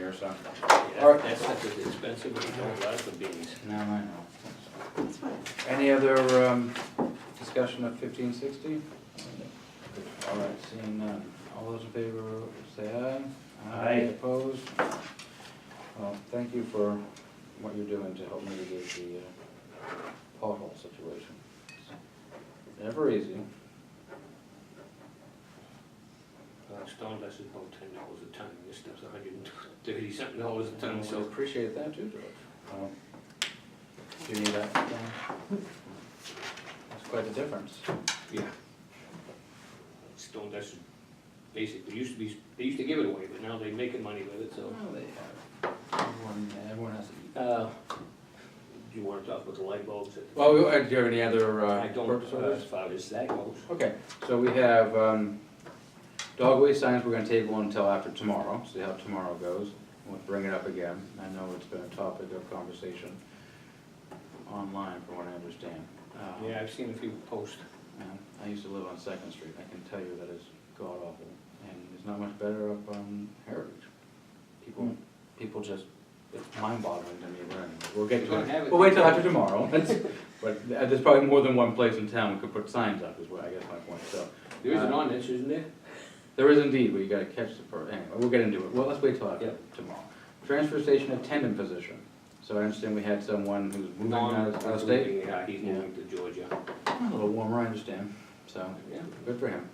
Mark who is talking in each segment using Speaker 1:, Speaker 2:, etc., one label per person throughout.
Speaker 1: or something.
Speaker 2: Yeah, That's not as expensive, but you don't like the beans.
Speaker 1: No, I know. Any other um, discussion of fifteen sixty? All right, seeing none. All those in favor, say aye.
Speaker 2: Aye.
Speaker 1: Opposed? Well, thank you for what you're doing to help mitigate the uh, pothole situation. Never easy.
Speaker 2: Uh, Stone dust is about ten dollars a ton, this stuff's a hundred and thirty something dollars a
Speaker 1: And
Speaker 2: ton,
Speaker 1: so
Speaker 2: so.
Speaker 1: appreciate that too, George. Um, Do you need that? Don? That's quite a difference.
Speaker 2: Yeah. Stone dust is basically, used to be, they used to give it away, but now they're making money with it, so.
Speaker 1: Well, they have. Everyone, everyone has to eat.
Speaker 2: Uh, Do you wanna talk about the light bulbs?
Speaker 1: Oh. Well, we- uh, do you have any other uh,
Speaker 2: I don't,
Speaker 1: purpose
Speaker 2: uh, as
Speaker 1: orders?
Speaker 2: far as that goes.
Speaker 1: Okay, so we have um, dog waste signs, we're gonna table until after tomorrow, see how tomorrow goes. We'll bring it up again. I know it's been a topic of conversation online, from what I understand. Uh,
Speaker 2: Yeah, I've seen a few posts.
Speaker 1: and I used to live on Second Street. I can tell you that it's god awful, and it's not much better up on Heritage. People, people just, it's mind boggling to me, but we'll get
Speaker 2: We're gonna
Speaker 1: to
Speaker 2: have
Speaker 1: it.
Speaker 2: it.
Speaker 1: We'll wait till after tomorrow. That's- But th- there's probably more than one place in town we could put signs up, is what I guess my point, so.
Speaker 2: There is an
Speaker 1: Uh,
Speaker 2: ordinance, isn't there?
Speaker 1: There is indeed, but you gotta catch the, per- anyway, we'll get into it, well, let's wait till after
Speaker 2: Yep.
Speaker 1: tomorrow. Transfer station attendant position, so I understand we had someone who's moving out of out of state.
Speaker 2: Yeah, he's
Speaker 1: Yeah.
Speaker 2: moving to Georgia.
Speaker 1: A little warmer, I understand, so.
Speaker 2: Yeah.
Speaker 1: Good for him.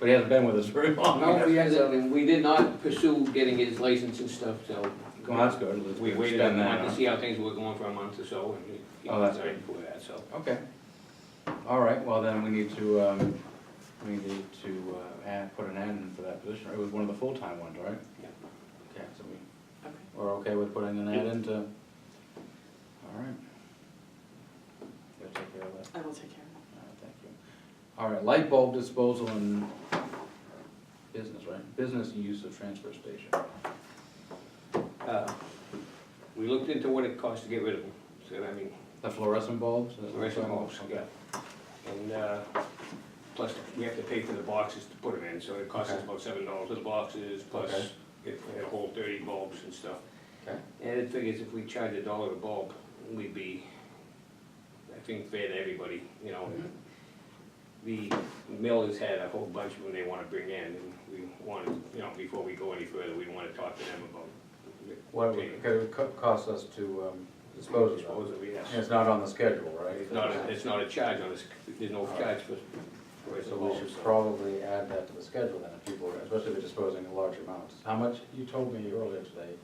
Speaker 1: But he hasn't been with us very long.
Speaker 2: No, we ended up, and we did not pursue getting his license and stuff, so.
Speaker 1: Well, that's good. Let's
Speaker 2: We waited a
Speaker 1: spend that
Speaker 2: month to
Speaker 1: on-
Speaker 2: see how things were going for a month or so, and he
Speaker 1: Oh, that's
Speaker 2: decided for that, so.
Speaker 1: Okay. All right, well then, we need to, um, we need to, uh, add, put an ad in for that position. It was one of the full-time ones, right?
Speaker 2: Yeah.
Speaker 1: Okay, so we, we're okay with putting an ad
Speaker 2: Yep.
Speaker 1: into, all right. Gotta take care of that.
Speaker 3: I will take care of
Speaker 1: All right, thank you. All right, light bulb disposal and business, right? Business use of transfer station.
Speaker 2: Uh, We looked into what it costs to get rid of them, so, I mean,
Speaker 1: The fluorescent bulbs? is that what you're
Speaker 2: fluorescent
Speaker 1: talking about? Okay.
Speaker 2: bulbs, yeah. And, uh, plus, we have to pay for the boxes to put them in, so it costs us
Speaker 1: Okay.
Speaker 2: about seven dollars for the boxes,
Speaker 1: Okay.
Speaker 2: plus it had a whole thirty bulbs and stuff.
Speaker 1: Okay.
Speaker 2: And it figures if we charge a dollar a bulb, we'd be, I think, fair to everybody, you know.
Speaker 1: Mm-hmm.
Speaker 2: The mill has had a whole bunch of them they wanna bring in, and we wanted, you know, before we go any further, we wanna talk to them about. the-
Speaker 1: What it would- it would co- cost us to um, dispose of
Speaker 2: Dispose
Speaker 1: it.
Speaker 2: of it, yes.
Speaker 1: And it's not on the schedule, right?
Speaker 2: It's not, a- it's not a charge on this, there's no charge for, for it
Speaker 1: So we should probably add that to the schedule then, if people, are- especially if we're disposing in large amounts. How much, you told me earlier today,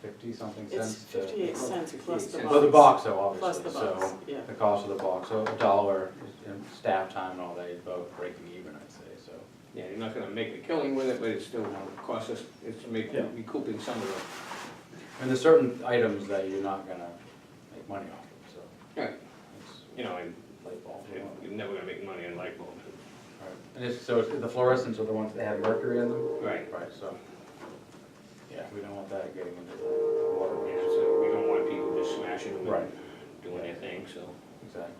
Speaker 1: fifty-something
Speaker 3: it. It's
Speaker 1: cents? to-
Speaker 3: fifty-eight cents plus the box.
Speaker 1: For Oh, the box though,
Speaker 3: Plus
Speaker 1: obviously,
Speaker 3: the
Speaker 1: so
Speaker 3: box, yeah.
Speaker 1: the cost of the box, so a dollar and staff time and all that, you're about breaking even, I'd say, so.
Speaker 2: Yeah, you're not gonna make a killing with it, but it's still gonna cost us, it's make,
Speaker 1: Yeah.
Speaker 2: recouping some of the.
Speaker 1: And there's certain items that you're not gonna make money off of, so.
Speaker 2: Right.
Speaker 1: it's
Speaker 2: You know, and
Speaker 1: light bulbs.
Speaker 2: it- you're never gonna make money on light bulbs.
Speaker 1: Right. And it's, so it's- the fluorescents are the ones that have mercury in them?
Speaker 2: Right.
Speaker 1: Right, so, yeah, we don't want that getting into the
Speaker 2: Yeah,
Speaker 1: water.
Speaker 2: so we don't want people just smashing them and
Speaker 1: Right.
Speaker 2: doing their thing, so.
Speaker 1: Exactly.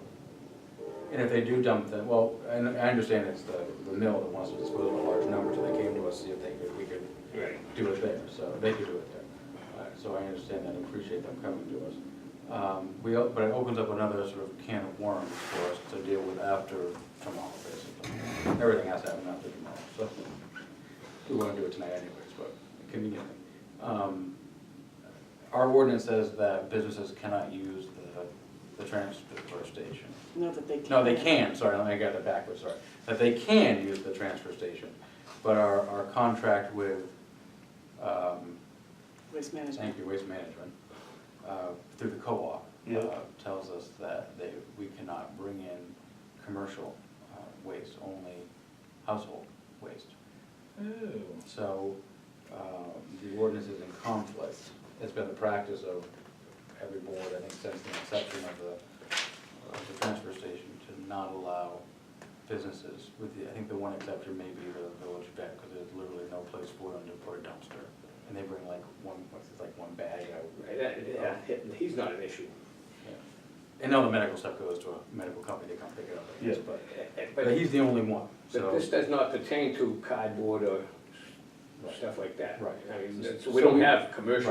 Speaker 1: And if they do dump them, well, and I understand it's the, the mill that wants to dispose of a large number, so they came to us, see if they could, we could
Speaker 2: Right.
Speaker 1: do it there, so they could do it there. Uh, So I understand that, and appreciate them coming to us. Um, we, al- but it opens up another sort of can of worms for us to deal with after tomorrow, basically. Everything has to happen after tomorrow, so we wanna do it tonight anyways, but conveniently. Um, Our ordinance says that businesses cannot use the, the transfer station.
Speaker 3: No, that they can.
Speaker 1: No, they can, sorry, let me get that backwards, sorry, that they can use the transfer station, but our, our contract with, um,
Speaker 3: Waste management.
Speaker 1: thank you, Waste Management, uh, through the co-op,
Speaker 2: Yeah.
Speaker 1: uh, tells us that they, we cannot bring in commercial uh, waste, only household waste. So, uh, the ordinance is in conflict. It's been the practice of every board, I think, since the inception of the, of the transfer station, to not allow businesses, with the, I think the one exception may be the village vet, because there's literally no place for them to put a dumpster. And they bring like one, what's it, like one bag out.
Speaker 2: Right, that- yeah, he- he's not an issue.
Speaker 1: Yeah. And all the medical stuff goes to a medical company, they come pick it up, I guess, but, but
Speaker 2: Eh, But,
Speaker 1: he's the only one,
Speaker 2: but
Speaker 1: so.
Speaker 2: this does not pertain to cardboard or
Speaker 1: Right.
Speaker 2: stuff like that.
Speaker 1: Right.
Speaker 2: I mean, that's-
Speaker 1: So
Speaker 2: we don't
Speaker 1: we-
Speaker 2: have commercial